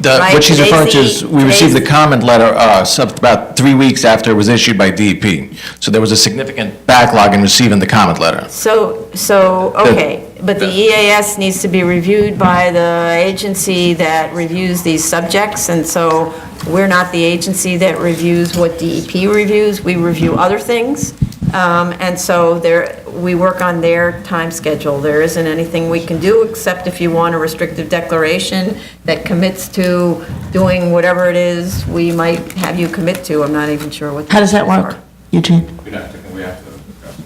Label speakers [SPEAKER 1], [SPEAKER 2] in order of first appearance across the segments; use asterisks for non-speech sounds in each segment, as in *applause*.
[SPEAKER 1] The-
[SPEAKER 2] Right,
[SPEAKER 1] What she's
[SPEAKER 2] today's
[SPEAKER 1] referring to
[SPEAKER 2] the-
[SPEAKER 1] is, we received the
[SPEAKER 2] today's-
[SPEAKER 1] comment letter uh, some- about three weeks after it was issued by DEP. So there was a significant backlog in receiving the comment letter.
[SPEAKER 2] So, so, okay, but the EAS needs to be reviewed by the agency that reviews these subjects, and so we're not the agency that reviews what DEP reviews, we review other things, Um, and so there, we work on their time schedule. There isn't anything we can do, except if you want a restrictive declaration that commits to doing whatever it is we might have you commit to, I'm not even sure what. the
[SPEAKER 3] How does that
[SPEAKER 2] numbers
[SPEAKER 3] work,
[SPEAKER 2] are.
[SPEAKER 3] Eugene?
[SPEAKER 4] We're not taking, we have to discuss.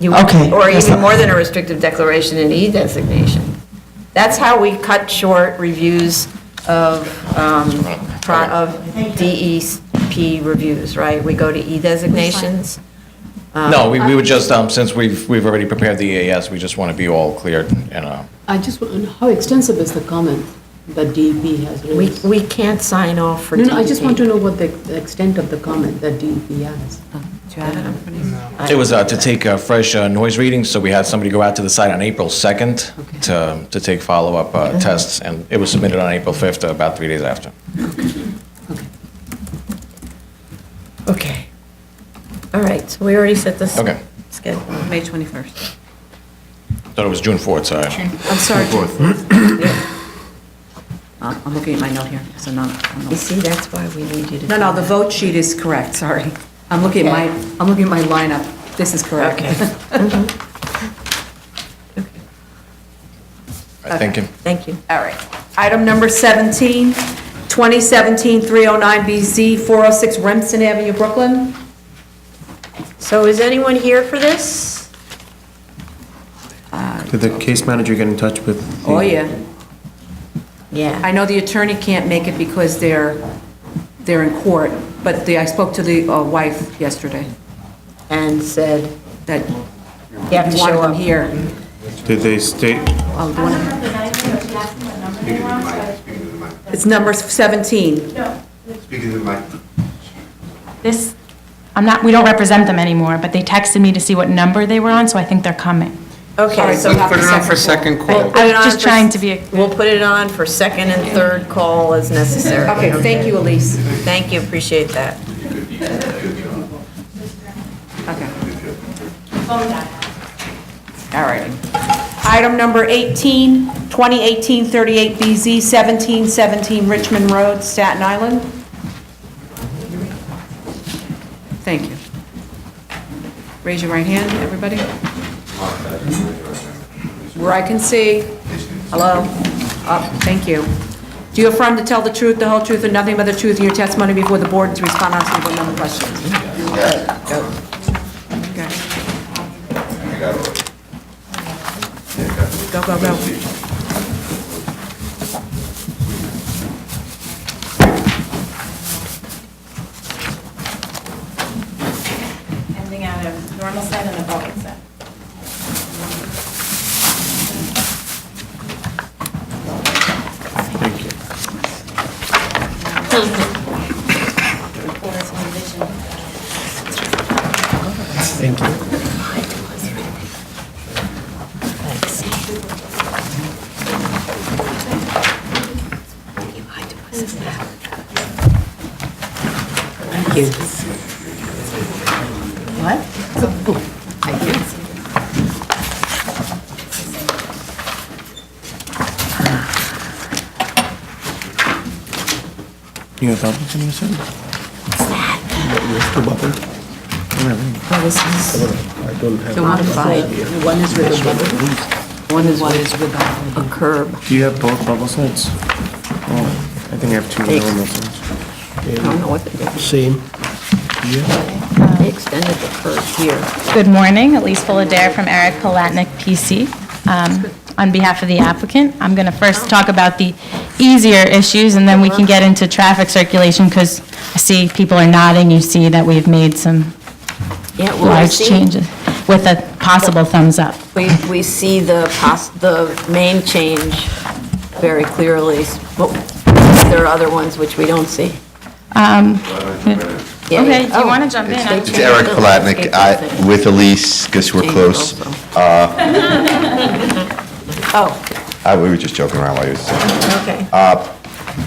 [SPEAKER 2] You-
[SPEAKER 3] Okay,
[SPEAKER 2] Or
[SPEAKER 3] that's
[SPEAKER 2] even
[SPEAKER 3] not-
[SPEAKER 2] more than a restrictive declaration, an E designation. That's how we cut short reviews of, um, pro- of DEP reviews, right? We go to E designations.
[SPEAKER 1] No, we we would just, um, since we've, we've already prepared the EAS, we just want to be all cleared and, uh,
[SPEAKER 5] I just, want- how extensive is the comment that DEP has
[SPEAKER 2] We,
[SPEAKER 5] raised?
[SPEAKER 2] we can't sign off for E
[SPEAKER 5] No,
[SPEAKER 2] DEP.
[SPEAKER 5] no, I just want to know what the the extent of the comment that DEP has.
[SPEAKER 2] Do you have it?
[SPEAKER 1] it was uh, to take uh, fresh uh, noise readings, so we had somebody go out to the site on April 2nd to, to take follow-up uh, tests, and it was submitted on April 5th, about three days after.
[SPEAKER 2] Okay. All right, so we already set this.
[SPEAKER 1] Okay.
[SPEAKER 2] Schedule.
[SPEAKER 6] May 21st.
[SPEAKER 1] Thought it was June 4th, sorry.
[SPEAKER 2] I'm sorry.
[SPEAKER 6] Uh, I'm looking at my note here, so no, no.
[SPEAKER 2] You see, that's why we need you to.
[SPEAKER 6] No, no, the vote sheet is correct, sorry. I'm looking at my, I'm looking at my lineup. This is correct.
[SPEAKER 2] Okay.
[SPEAKER 6] *laughs*
[SPEAKER 1] I think, um,
[SPEAKER 2] Thank you.
[SPEAKER 6] All right. Item number 17, 2017-309BZ, 406 Remsen Avenue, Brooklyn.
[SPEAKER 2] So is anyone here for this?
[SPEAKER 7] Did the case manager get in touch with? the-
[SPEAKER 6] Oh, yeah.
[SPEAKER 2] Yeah.
[SPEAKER 6] I know the attorney can't make it because they're, they're in court, but the, I spoke to the uh, wife yesterday
[SPEAKER 2] and said,
[SPEAKER 6] that
[SPEAKER 2] you have to
[SPEAKER 6] wanted
[SPEAKER 2] show
[SPEAKER 6] them
[SPEAKER 2] up.
[SPEAKER 6] here.
[SPEAKER 7] Did they state,
[SPEAKER 6] Oh, do you want to- It's number 17.
[SPEAKER 4] Speaking to Mike.
[SPEAKER 8] This, I'm not, we don't represent them anymore, but they texted me to see what number they were on, so I think they're coming.
[SPEAKER 2] Okay, so
[SPEAKER 6] Put it on for
[SPEAKER 4] second
[SPEAKER 2] we'll put
[SPEAKER 8] I'm
[SPEAKER 2] it on
[SPEAKER 8] just
[SPEAKER 2] for-
[SPEAKER 8] trying to be-
[SPEAKER 2] We'll put it on for second and third call as necessary.
[SPEAKER 6] Okay, thank you, Elise.
[SPEAKER 2] Thank you, appreciate that.
[SPEAKER 6] Okay. All right. Item number 18, 2018-38BZ, 1717 Richmond Road, Staten Island. Thank you. Raise your right hand, everybody. Where I can see. Hello? Up, thank you. Do you affirm to tell the truth, the whole truth, and nothing but the truth in your testimony before the board and to respond honestly to no questions? Okay. Go, go, go.
[SPEAKER 9] ending out of normal set and a bulk set. Thank you.
[SPEAKER 7] you know, Dublin, you said? Where's the
[SPEAKER 5] One
[SPEAKER 7] bubble?
[SPEAKER 5] is with a bubble. One is with a curb.
[SPEAKER 7] Do you have both bubble sets? Oh, I think I have two normal ones.
[SPEAKER 2] I don't know what they did.
[SPEAKER 10] Same.
[SPEAKER 2] They extended the curve here.
[SPEAKER 8] Good morning, Elise Fullader from Eric Palatnik, PC. Um, On behalf of the applicant, I'm going to first talk about the easier issues, and then we can get into traffic circulation, because I see people are nodding, you see that we've made some
[SPEAKER 2] Yeah, well, I
[SPEAKER 8] large
[SPEAKER 2] see-
[SPEAKER 8] changes, with a possible thumbs up.
[SPEAKER 2] We, we see the pos, the name change very clearly, but there are other ones which we don't see.
[SPEAKER 8] Um,
[SPEAKER 2] Yeah,
[SPEAKER 8] Okay,
[SPEAKER 2] yeah.
[SPEAKER 8] do you
[SPEAKER 2] Oh.
[SPEAKER 8] want to jump in? I'm
[SPEAKER 11] It's Eric
[SPEAKER 2] Change
[SPEAKER 11] Palatnik
[SPEAKER 2] also.
[SPEAKER 11] I- with Elise, because we're
[SPEAKER 2] Change
[SPEAKER 11] close.
[SPEAKER 2] also. Oh, *laughs*
[SPEAKER 11] Uh, We were just joking around while you were saying.
[SPEAKER 2] okay.
[SPEAKER 11] Uh,